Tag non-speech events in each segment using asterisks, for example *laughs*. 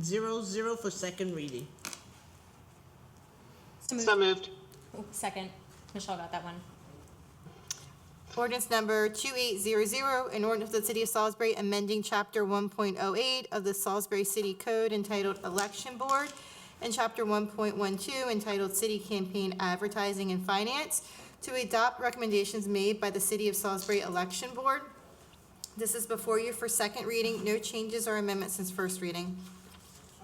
2800 for second reading. So So moved. moved. Ooh, Second. Michelle got that one. Ordinance number 2800, an ordinance of the City of Salisbury amending Chapter 1.08 of the Salisbury City Code entitled Election Board and Chapter 1.12 entitled City Campaign Advertising and Finance to adopt recommendations made by the City of Salisbury Election Board. This is before you for second reading. No changes or amendments since first reading.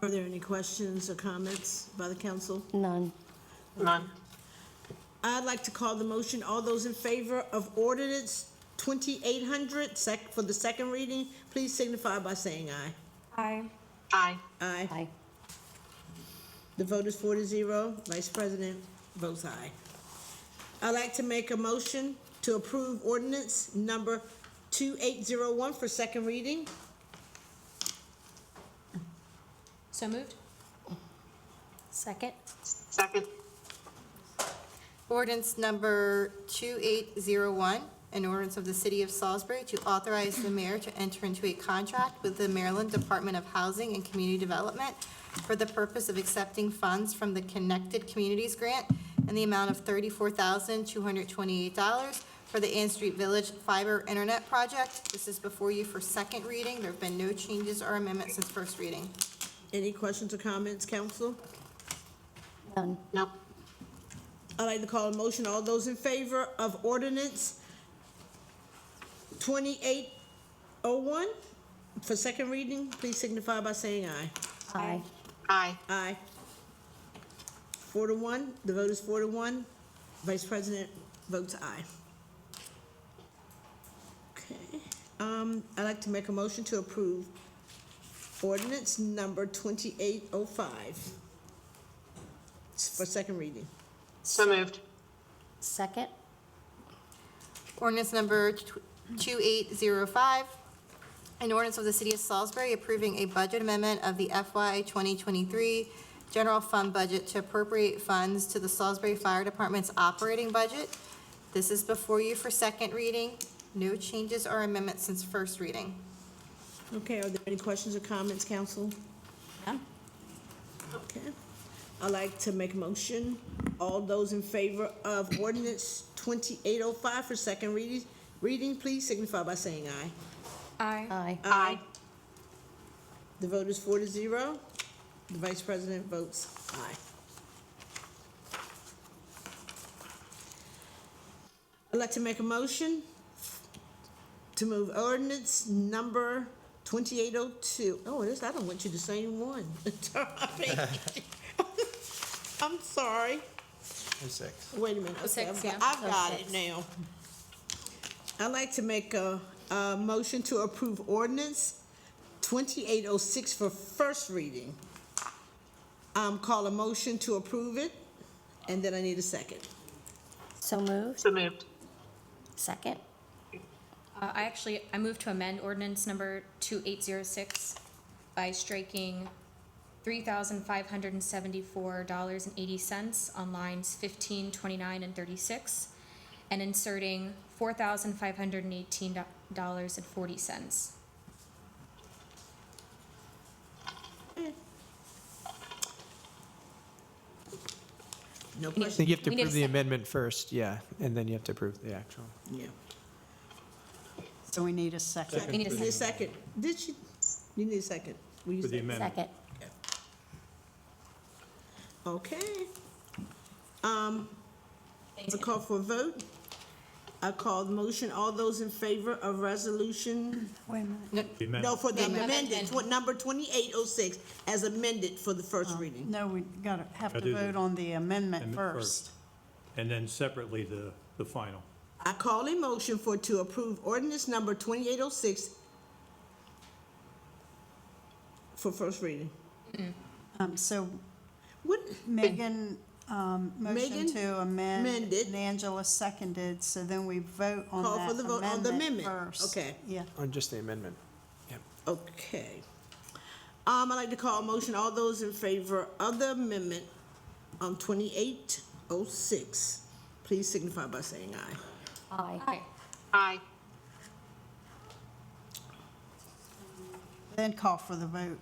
Are there any questions or comments by the council? None. None. I'd like to call the motion. All those in favor of ordinance 2800 sec, for the second reading, please signify by saying aye. Aye. Aye. Aye. Aye. The vote is four to zero. Vice President votes aye. I'd like to make a motion to approve ordinance number 2801 for second reading. So moved. Second. Second. Ordinance number 2801, an ordinance of the City of Salisbury to authorize the mayor to enter into a contract with the Maryland Department of Housing and Community Development for the purpose of accepting funds from the Connected Communities Grant in the amount of $34,228 for the Ann Street Village Fiber Internet Project. This is before you for second reading. There have been no changes or amendments since first reading. Any questions or comments, council? None. Nope. I'd like to call a motion. All those in favor of ordinance 2801 for second reading, please signify by saying aye. Aye. Aye. Aye. Four to one, the vote is four to one. Vice President votes aye. Okay, um, I'd like to make a motion to approve ordinance number twenty-eight oh five for second reading. So moved. Second. Ordinance number tw- 2805, an ordinance of the City of Salisbury approving a budget amendment of the FY 2023 general fund budget to appropriate funds to the Salisbury Fire Department's operating budget. This is before you for second reading. No changes or amendments since first reading. Okay, are there any questions or comments, council? None. Okay. I'd like to make a motion. All those in favor of ordinance twenty-eight oh five for second reading, reading, please signify by saying aye. Aye. Aye. Aye. The vote is four to zero. The vice president votes aye. I'd like to make a motion to move ordinance number 2802. Oh, this, I don't want you to say one. *laughs* I'm sorry. Oh, six. Wait a minute, okay, six, I've got, yeah. I've Oh, got six. it now. I'd like to make a, a motion to approve ordinance twenty-eight oh six for first reading. Um, call a motion to approve it, and then I need a second. So moved. So moved. Second. Uh, I actually, I moved to amend ordinance number 2806 by striking $3,574.80 on lines 15, 29, and 36, and inserting $4,518.40. No need a I question, think you have to We need a approve the second. amendment first, yeah, and then you have to approve the actual. yeah. So we need a second. We need a Need a second, second. did she, you need a second? Will you For the say- amendment. Second. Okay. A call for a vote. I call the motion, all those in favor of resolution Wait a minute. The amendment. No, for the amendment. amended, tw- number 2806, as amended for the first reading. No, we gotta have Gotta do to the vote on the amendment amendment first. And then separately, the, the final. I call a motion for to approve ordinance number 2806 for first reading. Um, so What, Megan, um, motion Megan to amend. amended. And Angela seconded, so then we vote on Call that for the vote on the amendment amendment. first. Okay. Yeah, On just the amendment. okay. Um, I'd like to call a motion, all those in favor of the amendment um, on 2806, please signify by saying aye. Aye. Aye. Aye. then call for the vote.